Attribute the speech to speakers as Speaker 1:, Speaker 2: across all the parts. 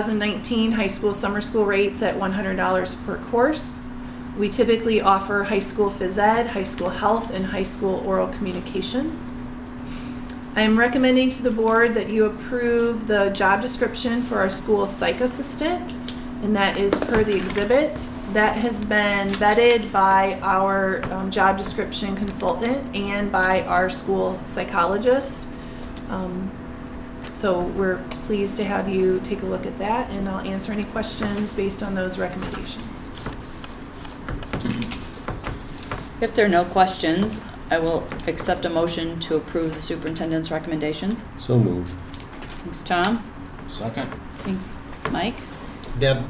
Speaker 1: 2019 high school summer school rates at $100 per course. We typically offer high school phys ed, high school health, and high school oral communications. I am recommending to the board that you approve the job description for our school psych assistant, and that is per the exhibit. That has been vetted by our um, job description consultant and by our school psychologist. Um, so we're pleased to have you take a look at that, and I'll answer any questions based on those recommendations.
Speaker 2: If there are no questions, I will accept a motion to approve the superintendent's recommendations.
Speaker 3: So moved.
Speaker 2: Thanks, Tom.
Speaker 4: Second?
Speaker 2: Thanks, Mike.
Speaker 5: Deb,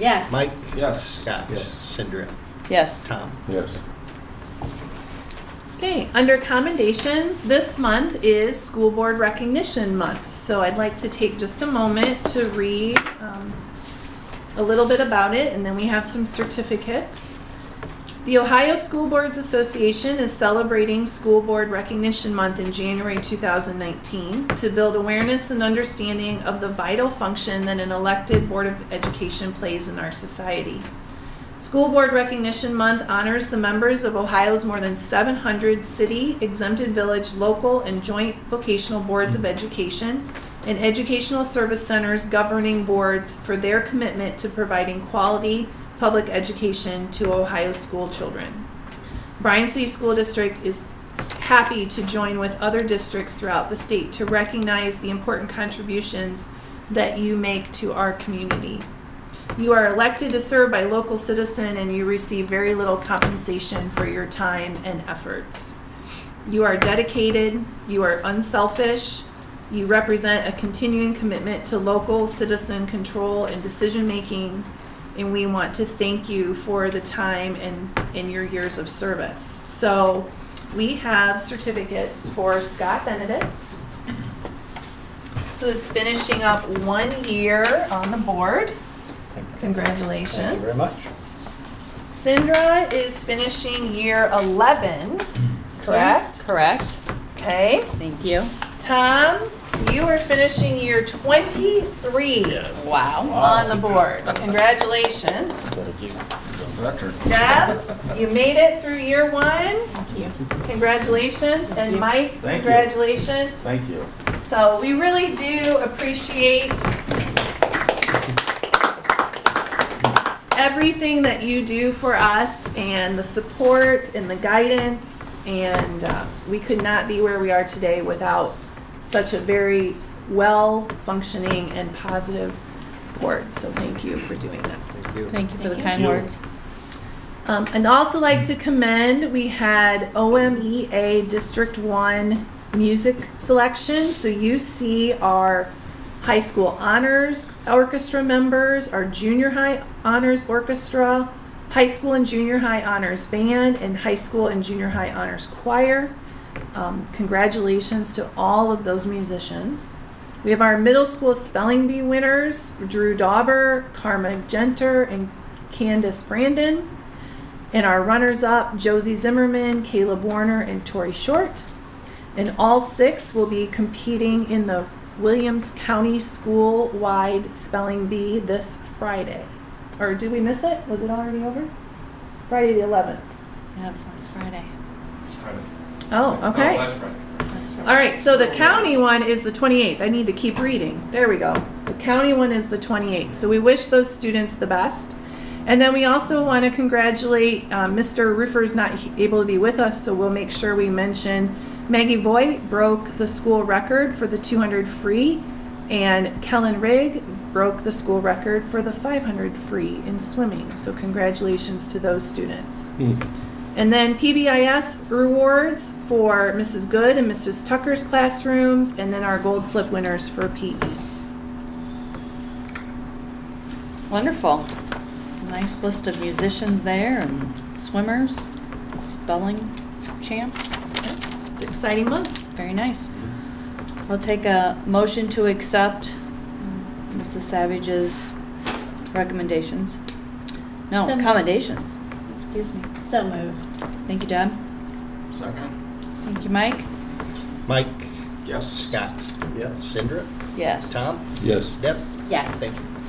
Speaker 2: Yes.
Speaker 5: Mike,
Speaker 4: Yes.
Speaker 5: Scott,
Speaker 4: Yes.
Speaker 5: Cindra,
Speaker 2: Yes.
Speaker 5: Tom.
Speaker 3: Yes.
Speaker 1: Okay, under commendations, this month is School Board Recognition Month, so I'd like to take just a moment to read um, a little bit about it, and then we have some certificates. The Ohio School Boards Association is celebrating School Board Recognition Month in January 2019 to build awareness and understanding of the vital function that an elected Board of Education plays in our society. School Board Recognition Month honors the members of Ohio's more than 700 city, exempted village, local, and joint vocational boards of education and educational service centers governing boards for their commitment to providing quality public education to Ohio school children. Bryan City School District is happy to join with other districts throughout the state to recognize the important contributions that you make to our community. You are elected to serve by local citizen and you receive very little compensation for your time and efforts. You are dedicated, you are unselfish, you represent a continuing commitment to local citizen control and decision making, and we want to thank you for the time and, and your years of service. So we have certificates for Scott Benedict, who's finishing up one year on the board. Congratulations.
Speaker 5: Thank you very much.
Speaker 1: Sindra is finishing year 11, correct?
Speaker 2: Correct.
Speaker 1: Okay.
Speaker 2: Thank you.
Speaker 1: Tom, you are finishing year 23
Speaker 2: Wow.
Speaker 1: on the board. Congratulations.
Speaker 4: Thank you. Veteran.
Speaker 1: Deb, you made it through year one.
Speaker 2: Thank you.
Speaker 1: Congratulations. And
Speaker 2: you.
Speaker 1: Mike,
Speaker 4: you.
Speaker 1: congratulations.
Speaker 4: Thank you.
Speaker 1: So we really do appreciate everything that you do for us and the support and the guidance. And uh, we could not be where we are today without such a very well-functioning and positive board. So thank you for doing that.
Speaker 5: Thank you.
Speaker 2: Thank you for the
Speaker 1: Thank
Speaker 2: kind
Speaker 4: you.
Speaker 2: words.
Speaker 1: Um, and also like to commend, we had OMEA District One music selection. So you see our high school honors orchestra members, our junior high honors orchestra, high school and junior high honors band, and high school and junior high honors choir. Um, congratulations to all of those musicians. We have our middle school spelling bee winners, Drew Dauber, Karma Genter, and Candace Brandon. And our runners up, Josie Zimmerman, Caleb Warner, and Tori Short. And all six will be competing in the Williams County School wide spelling bee this Friday. Or did we miss it? Was it already over? Friday the 11th.
Speaker 2: Yeah, it's last Friday.
Speaker 6: It's Friday.
Speaker 1: Oh,
Speaker 6: Oh,
Speaker 1: okay.
Speaker 6: last Friday.
Speaker 1: All right, so the county one is the 28th. I need to keep reading. There we go. The county one is the 28th. So we wish those students the best. And then we also want to congratulate uh, Mr. Roofer's not he- able to be with us, so we'll make sure we mention Maggie Voigt broke the school record for the 200 free, and Kellen Rigg broke the school record for the 500 free in swimming. So congratulations to those students.
Speaker 3: Hmm.
Speaker 1: And then PBIS rewards for Mrs. Good and Mrs. Tucker's classrooms, and then our gold slip winners for E. PE.
Speaker 2: Wonderful. Nice list of musicians there and swimmers, spelling champs.
Speaker 1: It's an exciting month.
Speaker 2: Very nice. I'll take a motion to accept um, Mrs. Savage's recommendations. No,
Speaker 7: So moved.
Speaker 2: commendations. Excuse me.
Speaker 7: So moved.
Speaker 2: Thank you, Deb.
Speaker 4: Second?
Speaker 2: Thank you, Mike.
Speaker 5: Mike,
Speaker 4: Yes.
Speaker 5: Scott,
Speaker 4: Yes.
Speaker 5: Cindra,
Speaker 2: Yes.
Speaker 5: Tom,
Speaker 3: Yes.
Speaker 5: Deb,
Speaker 8: Yes.
Speaker 5: Thank you.